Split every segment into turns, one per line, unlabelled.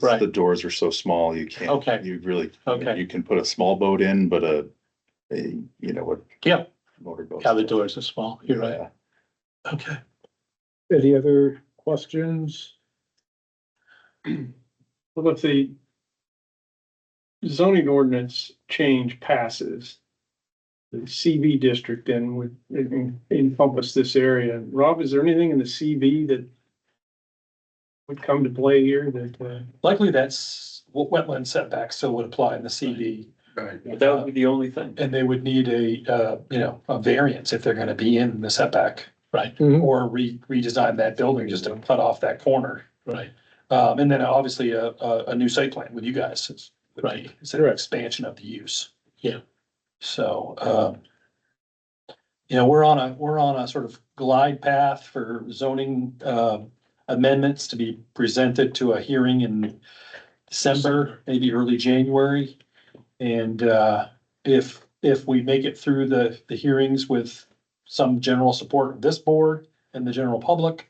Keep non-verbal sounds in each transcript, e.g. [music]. Right.
The doors are so small, you can't.
Okay.
You really,
Okay,
you can put a small boat in, but a, a, you know, what.
Yeah.
Motor boat.
yeah, the doors are small, you're right, okay.
Any other
[clears throat]
questions?
Well, if the zoning ordinance change passes, the CV district then would encompass this area. Rob, is there anything in the CV that would come to play here that, uh,
Likely that's what wetland setback still would apply in the CV.
Right.
But that would
be the only thing.
And they would need a, uh, you know, a variance if they're gonna be in the setback. Right.
Mhm.
Or re, redesign that building just to cut off that corner. Right. Um, and then obviously a, a, a new site plan with you guys. is- would be-
Right.
It's an expansion of the use. Yeah. So, um. You know, we're on a, we're on a sort of glide path for zoning, uh, amendments to be presented to a hearing in December, maybe early January. And, uh, if, if we make it through the, the hearings with some general support of this board and the general public,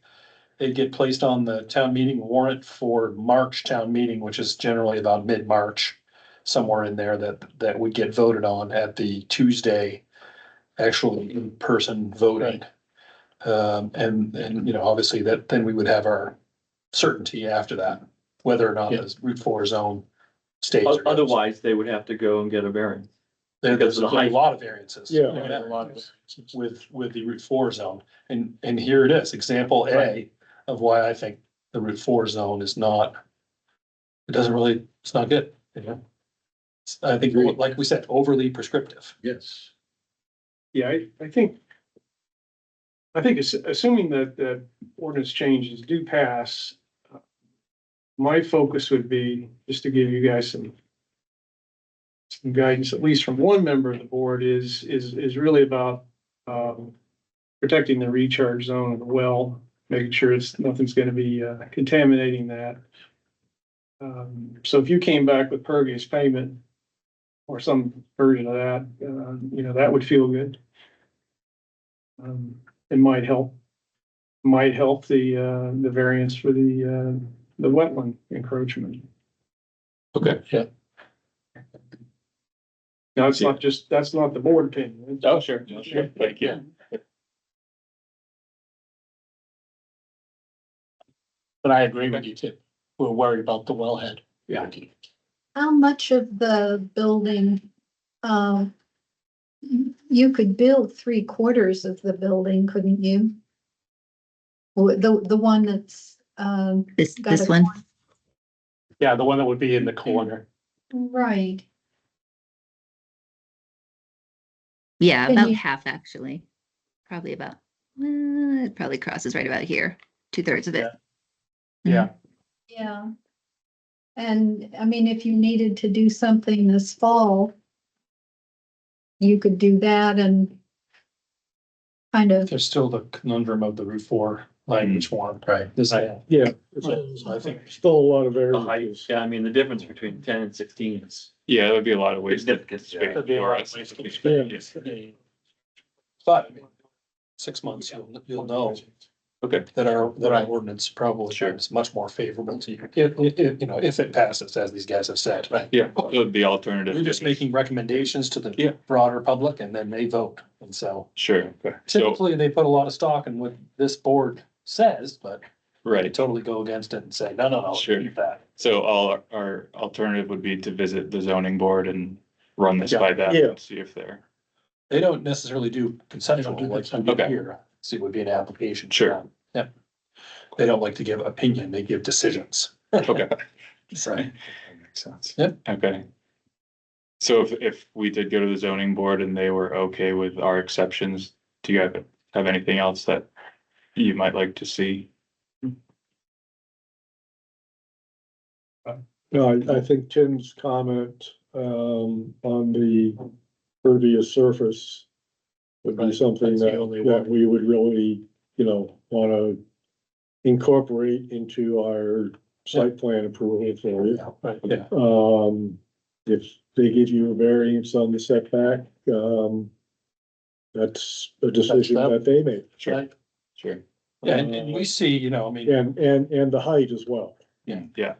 they get placed on the town meeting warrant for March town meeting, which is generally about mid-March. Somewhere in there that, that would get voted on at the Tuesday, actual in-person voting. Um, and, and, you know, obviously that, then we would have our certainty after that, whether or not the Route Four zone stays. or goes.
Otherwise, they would have to go and get a variance.
There- There's
Because
a
of the height.
lot of variances.
Yeah.
A lot of with, with the Route Four zone. And, and here it is, example A of why I think the Route Four zone is not, it doesn't really, it's not good. you know? It's- I think, like we said, overly prescriptive.
Yes.
yeah, I, I think I think ass- assuming that the ordinance changes do pass, uh, my focus would be just to give you guys some some guidance, at least from one member of the board, is, is, is really about um, protecting the recharge zone of the well, making sure it's, nothing's gonna be uh, contaminating that. Um, So if you came back with pervious pavement or some version of that, uh, you know, that would feel good. Um, it might help, might help the, uh, the variance for the, uh, the wetland encroachment.
Okay. Yeah.
Now, it's not just, that's not the board opinion.
Oh, sure, sure, thank you.
But I agree with you too. We're worried about the wellhead. Yeah.
how much of the building, um, you could build three quarters of the building, couldn't you? Or The, the one that's, um,
This,
Got
this
it.
one,
Yeah, the one that would be in the corner.
right,
yeah,
Can
about
you-
half actually. Probably about, uh, it probably crosses right about here, two thirds of it.
Yeah.
yeah. And, I mean, if you needed to do something this fall, you could do that and kind of,
There's still the conundrum of the Route Four language one. Right. Design.
Yeah.
So I think
Still a lot of
The height,
variances.
yeah, I mean, the difference between ten and sixteen is
Yeah, that would be a lot of
significant.
That'd be a lot of waste of space. But I mean, six months, you'll, you'll know.
Okay.
That our, that our ordinance probably is much more favorable to you, if, if- if, you know, if it passes, as these guys have said. Right.
Yeah, it would be alternative.
We're just making recommendations to the
Yeah.
broader public and then they vote. And so
Sure, okay, so,
typically they put a lot of stock in what this board says, but they
right,
totally go against it and say, no, no, no,
Sure.
keep that.
so all our- our alternative would be to visit the zoning board and run this by that,
Yeah.
and see if they're.
They don't necessarily do conceptual like we do
Okay.
here, so it would be an application. to
Sure.
them. Yeah. They don't like to give opinion, they give decisions.
Okay.
[laughs] Right.
Makes sense.
Yep.
Okay. So if, if we did go to the zoning board and they were okay with our exceptions, do you have, have anything else that you might like to see?
No, I, I think Tim's comment, um, on the pervious surface would be
Right,
something
that's the
that,
only
that
one.
we would really, you know, wanna incorporate into our site plan approval for you.
Right, yeah,
Um, if they give you a variance on the setback, um, that's a decision
them.
that they make.
Sure, sure.
yeah, and, and we see, you know, I mean,
And, and, and the height as well.
Yeah,